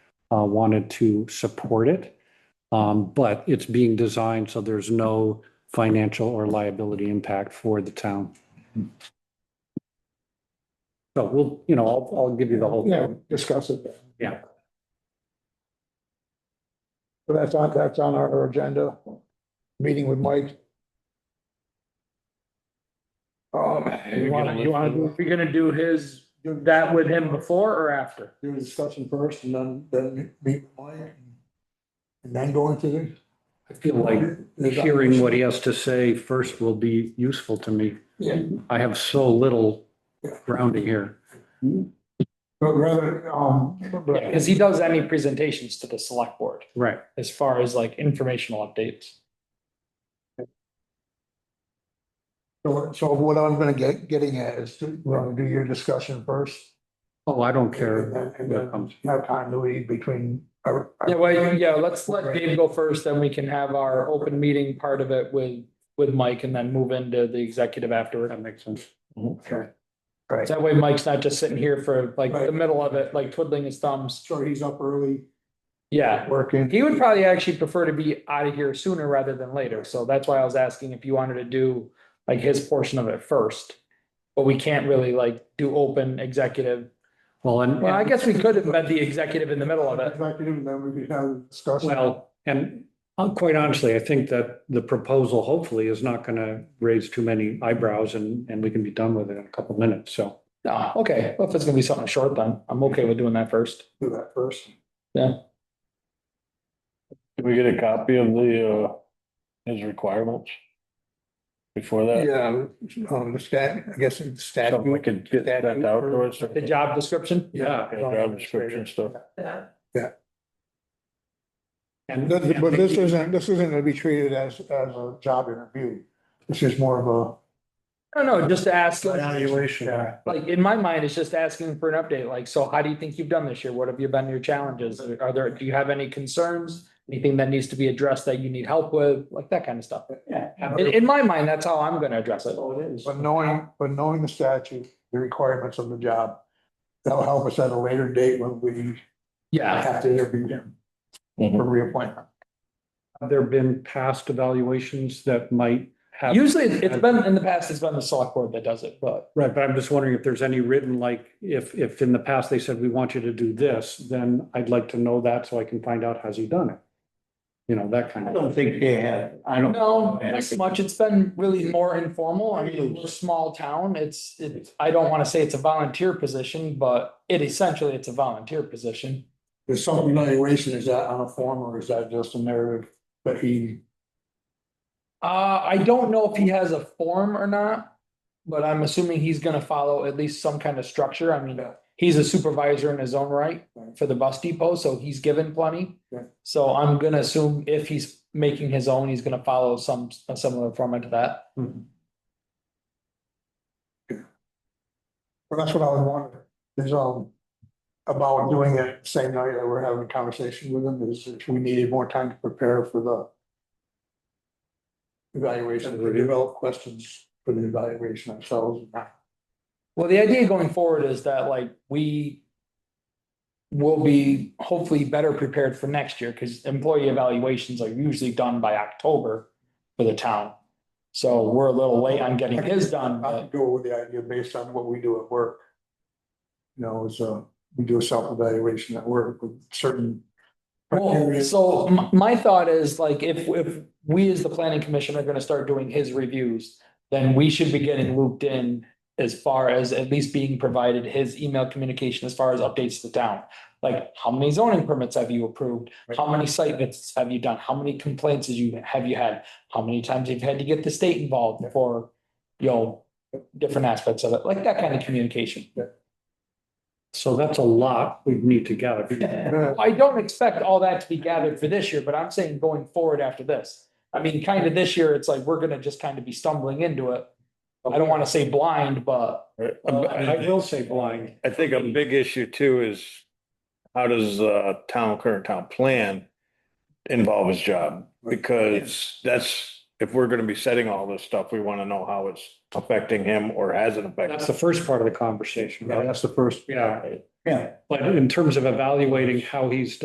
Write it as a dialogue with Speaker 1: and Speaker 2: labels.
Speaker 1: uh, wanted to support it. Um, but it's being designed so there's no financial or liability impact for the town. So we'll, you know, I'll, I'll give you the whole
Speaker 2: Yeah,
Speaker 1: thing.
Speaker 2: discuss it. then.
Speaker 1: Yeah.
Speaker 2: So that's on, that's on our agenda, meeting with Mike. Um, you wanna, you wanna do,
Speaker 3: We're gonna do his, do that with him before or after?
Speaker 2: do a discussion first and then, then meet with Mike? And then go into the.
Speaker 1: I feel like hearing what he has to say first will be useful to me.
Speaker 2: Yeah,
Speaker 1: I have so little grounding here.
Speaker 2: but rather, um. but-
Speaker 4: Because he does any presentations to the select board
Speaker 1: Right.
Speaker 4: as far as like informational updates.
Speaker 2: So, so what I'm gonna get, getting at is to, we're gonna do your discussion first.
Speaker 1: Oh, I don't
Speaker 2: And
Speaker 1: care.
Speaker 2: then- And then have continuity between. uh, our- our-
Speaker 4: Yeah, well, yeah, let's let Dave go first, then we can have our open meeting part of it with, with Mike and then move into the executive afterward.
Speaker 1: That makes sense.
Speaker 2: Okay. Right.
Speaker 4: That way Mike's not just sitting here for like the
Speaker 2: Right.
Speaker 4: middle of it, like twiddling his thumbs.
Speaker 2: So he's up early,
Speaker 4: Yeah.
Speaker 2: working.
Speaker 4: He would probably actually prefer to be out of here sooner rather than later. So that's why I was asking if you wanted to do like his portion of it first. But we can't really like do open executive.
Speaker 1: Well, and.
Speaker 4: Well, I guess we could embed the executive in the middle of it.
Speaker 2: Executive, then we could have a discussion.
Speaker 1: Well, and uh, quite honestly, I think that the proposal hopefully is not going to raise too many eyebrows and, and we can be done with it in a couple minutes. So
Speaker 4: No, Ah, okay. Well, if it's gonna be something short, then I'm okay with doing that first.
Speaker 2: Do that first.
Speaker 5: Can we get a copy of the, uh, his requirements? Before that,
Speaker 2: Yeah, um, the stat, I guess it's stat.
Speaker 5: something we could get that out to us.
Speaker 4: The job description?
Speaker 1: Yeah.
Speaker 5: Job description stuff.
Speaker 1: and
Speaker 2: This- But this isn't, this isn't gonna be treated as, as a job interview. This is more of
Speaker 4: No, no, just to ask,
Speaker 2: a.
Speaker 4: like,
Speaker 2: Evaluation. Yeah.
Speaker 4: in my mind, it's just asking for an update. Like, so how do you think you've done this year? What have you been your challenges? Are there, do you have any concerns? Anything that needs to be addressed that you need help with, like that kind of stuff. In, in my mind, that's how I'm gonna address it.
Speaker 2: But knowing, but knowing the statute, the requirements of the job, that'll help us at a later date when we
Speaker 4: Yeah, Mm-hmm.
Speaker 2: have to interview him for reappointment.
Speaker 1: Have there been past evaluations that might have?
Speaker 4: usually it's been, in the past, it's been the select board that does it, but
Speaker 1: Right, but I'm just wondering if there's any written, like, if, if in the past they said, we want you to do this, then I'd like to know that so I can find out, has he done it? You know, that kind of.
Speaker 5: think they have, I don't.
Speaker 4: no, not so much. It's been really more informal. I mean, we're a small town. It's, it's, I don't wanna say it's a volunteer position, but it essentially, it's a volunteer position.
Speaker 2: Is some evaluation, is that on a form or is that just a narrative that he?
Speaker 4: Uh, I don't know if he has a form or not, but I'm assuming he's gonna follow at least some kind of structure. I mean,
Speaker 2: Yeah.
Speaker 4: he's a supervisor in his own right
Speaker 2: Right.
Speaker 4: for the bus depot, so he's given plenty.
Speaker 2: Yeah.
Speaker 4: So I'm gonna assume if he's making his own, he's gonna follow some, a similar format to that.
Speaker 2: hmm. Well, that's what I was wondering, is um, about doing it same night that we're having a conversation with him, is if we needed more time to prepare for the evaluation, to develop questions for the evaluation ourselves.
Speaker 4: Well, the idea going forward is that like we will be hopefully better prepared for next year because employee evaluations are usually done by October for the town. So we're a little late on getting his done,
Speaker 2: I
Speaker 4: but
Speaker 2: could go with the idea based on what we do at work. You know, is uh, we do a self-evaluation at work with certain.
Speaker 4: Well, Oh, so my, my thought is like, if, if we as the planning commission are gonna start doing his reviews, then we should be getting looped in as far as at least being provided his email communication as far as updates to the town. Like, how many zoning permits have you approved? How many site visits have you done? How many complaints have you, have you had? How many times you've had to get the state involved for, you know, different aspects of it, like that kind of communication.
Speaker 1: So that's a lot we need to gather.
Speaker 2: Yeah,
Speaker 4: I don't expect all that to be gathered for this year, but I'm saying going forward after this. I mean, kind of this year, it's like, we're gonna just kind of be stumbling into it. I don't wanna say blind, but
Speaker 1: I
Speaker 4: uh,
Speaker 1: will say blind.
Speaker 5: I think a big issue too is how does uh town, current town plan involve his job? Because that's, if we're gonna be setting all this stuff, we wanna know how it's affecting him or hasn't affected.
Speaker 1: That's the first part of the conversation.
Speaker 2: That's the first.
Speaker 1: Yeah.
Speaker 2: Yeah.
Speaker 1: But in terms of evaluating how he's